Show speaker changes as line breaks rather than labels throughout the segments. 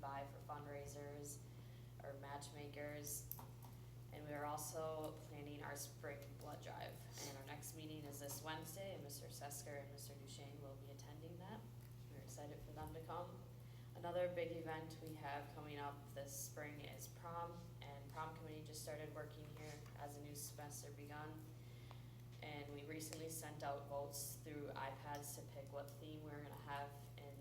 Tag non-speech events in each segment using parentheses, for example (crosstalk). buy for fundraisers or matchmakers. And we are also planning our spring blood drive, and our next meeting is this Wednesday, and Mr. Sesker and Mr. Duchesne will be attending that. We're excited for them to come. Another big event we have coming up this spring is prom, and prom committee just started working here as a new semester begun. And we recently sent out votes through iPads to pick what theme we we're gonna have in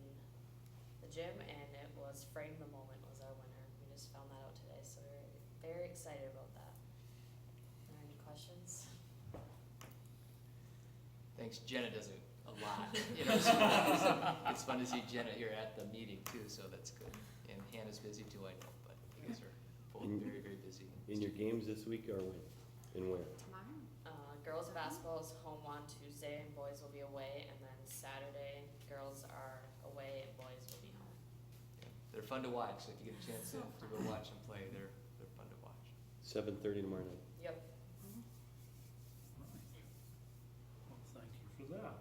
the gym, and it was Frame the Moment was our winner. We just found that out today, so we're very excited about that. Are there any questions?
Thanks, Jenna does it a lot. (laughs) You know, so It's fun to see Jenna here at the meeting too, so that's good. And Hannah's busy too, I know, but you guys are both very, very busy.
In your games this week or when? And where?
Tomorrow?
Uh, girls basketball is home on Tuesday, and boys will be away, and then Saturday, girls are away and boys will be home.
They're fun to watch, so if you get a chance to,
So
to go
fun.
watch and play, they're, they're fun to watch.
Seven thirty tomorrow night.
Yep.
Well, thank you for that.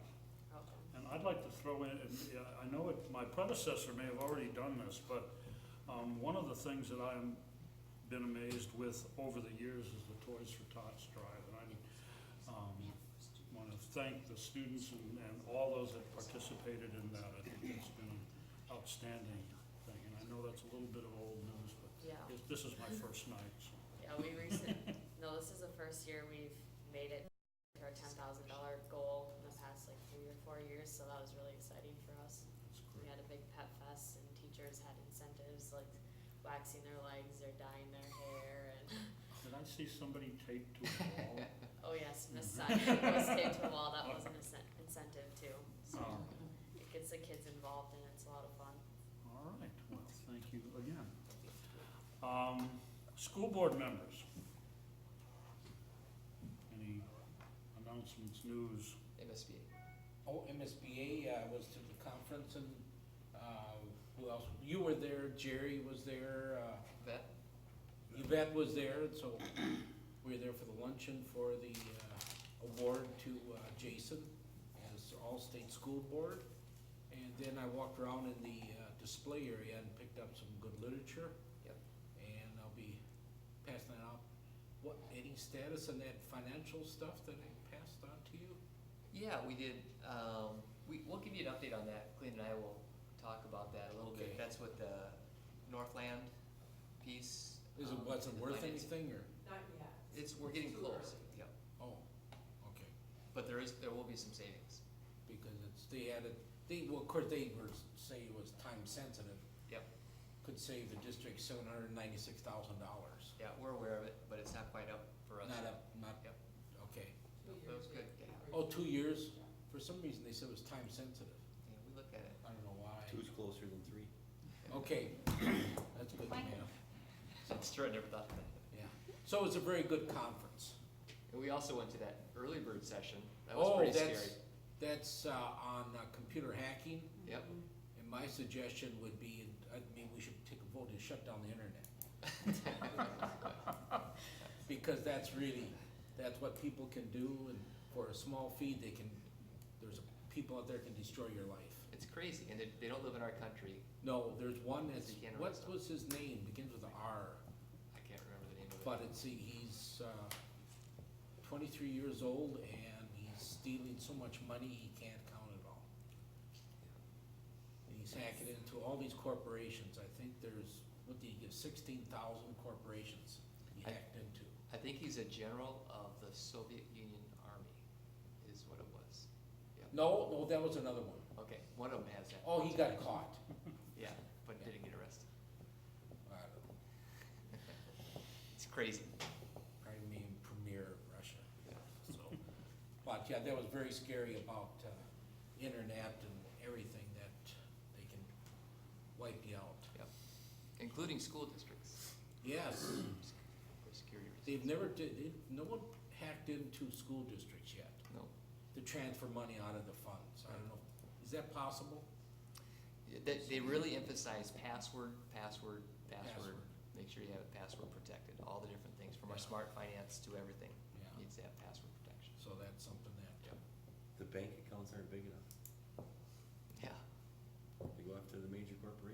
Okay.
And I'd like to throw in, and yeah, I know it, my predecessor may have already done this, but um, one of the things that I'm been amazed with over the years is the Toys for Tots drive. And I um, want to thank the students and, and all those that participated in that. I think it's been an outstanding thing. And I know that's a little bit of old news, but
Yeah.
it- this is my first night, so.
Yeah, we recent, no, this is the first year we've made it to our ten thousand dollar goal in the past like three or four years, so that was really exciting for us.
it's
We
great.
had a big pet fest and teachers had incentives like waxing their legs or dyeing their hair and, (laughs)
Did I see somebody taped to a wall?
oh yes, Miss Simon was taped to a wall, that was an incen- incentive too. So
Oh.
Um,
it gets the kids involved and it's a lot of fun.
All right, well, thank you again. Um, School board members. Any announcements, news?
MSBA.
Oh, MSBA uh, was to the conference and uh, who else? You were there, Jerry was there, uh,
Vet,
Yvette was there, and so (clears throat) we were there for the luncheon for the uh, award to uh, Jason as All-State School Board. And then I walked around in the uh, display area and picked up some good literature.
Yep.
And I'll be passing that out. What, any status on that financial stuff that I passed on to you?
yeah, we did, um, we, we'll give you an update on that. Clayton and I will talk about that a little bit.
Okay.
That's what the Northland piece.
Is it,
um,
was it
the
worth
finance-
anything, or?
It's, we're getting close, yeah.
Oh, okay,
But there is, there will be some savings.
because it's, they added, they, well, of course, they were, say it was time sensitive,
Yep,
could save the district seven hundred and ninety-six thousand dollars.
yeah, we're aware of it, but it's not quite up for us.
Not up, not,
Yep.
okay.
That was good, yeah,
Oh, two years, for some reason, they said it was time sensitive,
yeah, we look at
(laughs)
it.
I don't know why.
Two's closer than three.
Okay, (coughs) that's good, man,
That's true, I never thought of that.
yeah. So it's a very good conference.
And we also went to that early bird session, that was pretty
Oh,
scary.
that's, that's, uh, on uh, computer hacking, (laughs)
Yep, (laughs)
and my suggestion would be, I mean, we should take a vote and shut down the internet. because that's really, that's what people can do, and for a small fee, they can, there's people out there can destroy your life.
it's crazy, and they, they don't live in our country,
No, there's one that's,
They can't
what
arrest them.
was his name, begins with a R,
I can't remember the name of it.
but it's, he's, uh, twenty-three years old, and he's stealing so much money, he can't count it all. And he's hacking into all these corporations, I think there's, what do you give, sixteen thousand corporations he
I-
hacked into.
I think he's a general of the Soviet Union Army, is what it was.
No, no, that was another one.
Okay, one of them has that.
Oh, he got caught.
Yeah, but didn't get arrested.
I don't know.
It's crazy.
I mean, premier of Russia,
Yeah.
so. But yeah, that was very scary about, uh, internet and everything that they can wipe you out.
Including school districts
Yes,
for security reasons.
they've never did, they, no one hacked into school districts yet
No,
to transfer money out of the funds. I don't know, is that possible?
they, they really emphasize password, password, password.
Password.
Make sure you have it password protected, all the different things, from our
Yeah.
smart finance to everything,
Yeah,
needs to have password protection.
so that's something that, uh,
The bank accounts aren't big enough.
Yeah,
They go after the major corporations.